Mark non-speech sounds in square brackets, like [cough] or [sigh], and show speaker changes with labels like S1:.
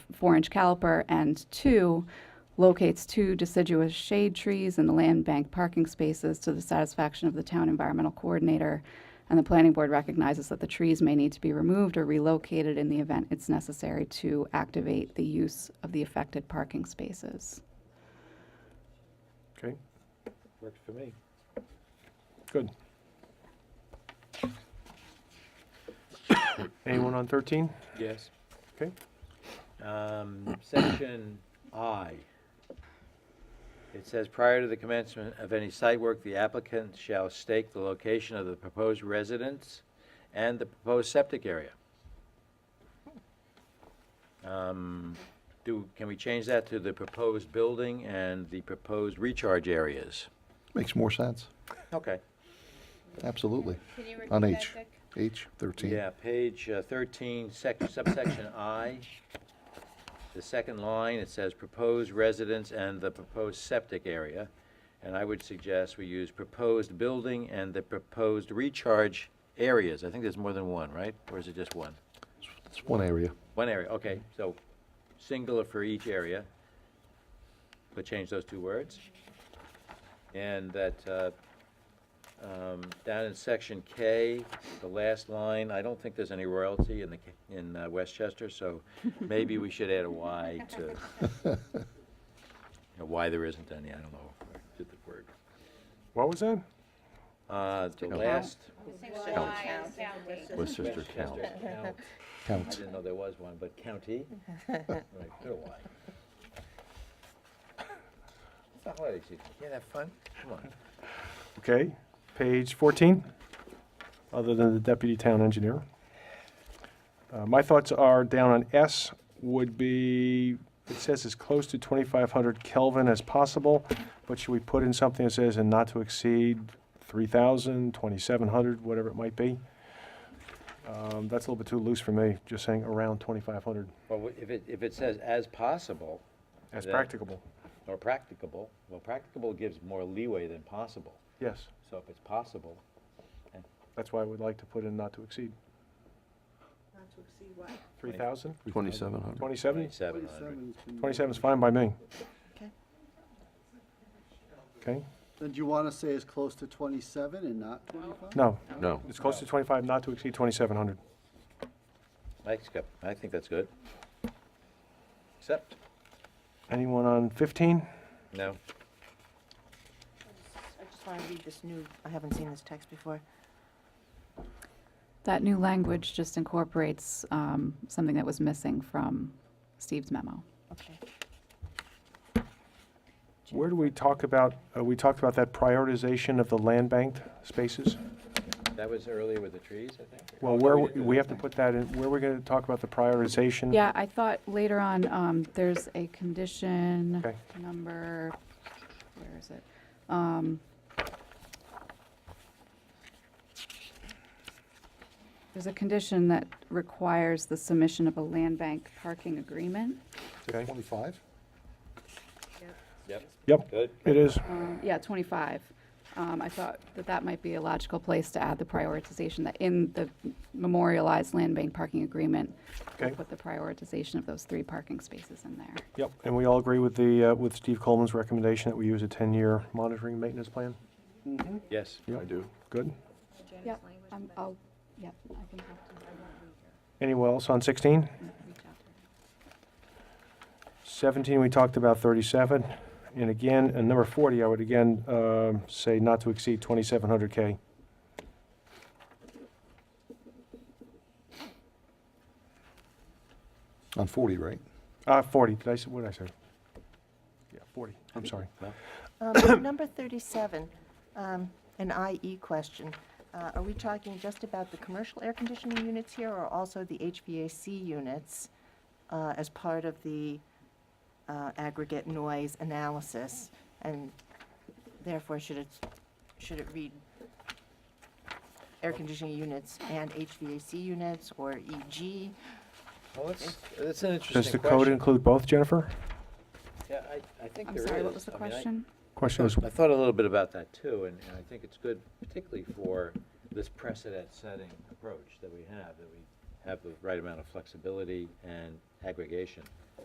S1: four-inch caliper, and two, locates two deciduous shade trees in the land bank parking spaces to the satisfaction of the town environmental coordinator. And the planning board recognizes that the trees may need to be removed or relocated in the event it's necessary to activate the use of the affected parking spaces.
S2: Okay,
S3: Worked for me.
S2: good. [coughs] Anyone on 13?
S3: Yes.
S2: Okay.
S3: Um, section I. It says, prior to the commencement of any site work, the applicant shall stake the location of the proposed residence and the proposed septic area. Um, do, can we change that to the proposed building and the proposed recharge areas?
S4: Makes more sense,
S3: Okay.
S4: absolutely.
S5: Can you repeat
S4: On
S5: that,
S4: H,
S5: Dick?
S4: H thirteen.
S3: Yeah, page uh, 13, sec- subsection I, the second line, it says proposed residence and the proposed septic area. And I would suggest we use proposed building and the proposed recharge areas. I think there's more than one, right? Or is it just one?
S4: It's one area.
S3: One area, okay, so singular for each area. But change those two words. And that, uh, um, down in section K, the last line, I don't think there's any royalty in the, K- in uh, Westchester, so maybe we should add a Y to, you know, why there isn't any, I don't know, if I did the word.
S2: What was that?
S3: Uh, The last
S5: Why is that way?
S4: Westchester
S3: Westchester count. I
S4: Count.
S3: didn't know there was one, but
S1: [laughs]
S3: county? Right, put a Y. It's not holiday season. Can't have fun? Come on.
S2: Okay, page 14, other than the deputy town engineer. Uh, My thoughts are down on S would be, it says as close to 2,500 Kelvin as possible, but should we put in something that says and not to exceed 3,000, 2,700, whatever it might be? Um, That's a little bit too loose for me, just saying around 2,500
S3: Well, wh- if it, if it says as possible
S2: as
S3: Yeah.
S2: practicable.
S3: or practicable, well, practicable gives more leeway than possible.
S2: Yes,
S3: So if it's possible,
S2: that's why I would like to put in not to exceed
S6: Not to exceed what?
S2: 3,000,
S4: Twenty-seven hundred.
S2: 27?
S3: twenty-seven hundred.
S2: 27 is fine by me.
S6: Okay.
S2: Okay,
S7: Then do you want to say as close to 27 and not 25?
S2: no,
S4: No.
S2: it's close to 25, not to exceed 2,700.
S3: I accept, I think that's good. Accept?
S2: Anyone on 15?
S3: No?
S6: I just want to read this new, I haven't seen this text before.
S1: That new language just incorporates um, something that was missing from Steve's memo.
S6: Okay.
S2: Where do we talk about, uh, we talked about that prioritization of the land banked spaces?
S3: That was earlier with the trees, I think.
S2: Well, where, w- we have to put that in, where we're going to talk about the prioritization?
S1: Yeah, I thought later on, um, there's a condition
S2: Okay.
S1: number, where is it? Um, There's a condition that requires the submission of a land bank parking agreement.
S2: Okay.
S4: Twenty-five?
S3: Yep.
S2: Yep,
S3: Good.
S2: it is.
S1: Um, Yeah, 25. Um, I thought that that might be a logical place to add the prioritization, that in the memorialized land bank parking agreement, we'll
S2: Okay.
S1: put the prioritization of those three parking spaces in there.
S2: Yep, and we all agree with the, uh, with Steve Coleman's recommendation that we use a 10-year monitoring maintenance plan?
S3: Yes.
S2: I do. Good.
S1: Yep, I'm- Um, I'll, yep, I can talk to
S2: Anyone else on 16?
S1: reach out to her.
S2: 17, we talked about 37. And again, and number 40, I would again um, say not to exceed 2,700K.
S4: On forty, right?
S2: Uh, 40, did I, say- what did I say? Yeah, 40, I'm sorry.
S6: Um, [coughs] Number 37, um, an IE question. Uh, Are we talking just about the commercial air conditioning units here or also the HVAC units uh, as part of the uh, aggregate noise analysis? And therefore, should it, should it read air conditioning units and HVAC units or E EG?
S3: Well, that's, that's an interesting question.
S2: Does the code include both, Jennifer?
S3: Yeah, I, I think
S1: I'm
S3: there is.
S1: sorry, what was the
S3: I mean, I-
S1: question?
S2: Question was,
S3: I thought a little bit about that too, and and I think it's good particularly for this precedent-setting approach that we have, that we have the right amount of flexibility and aggregation.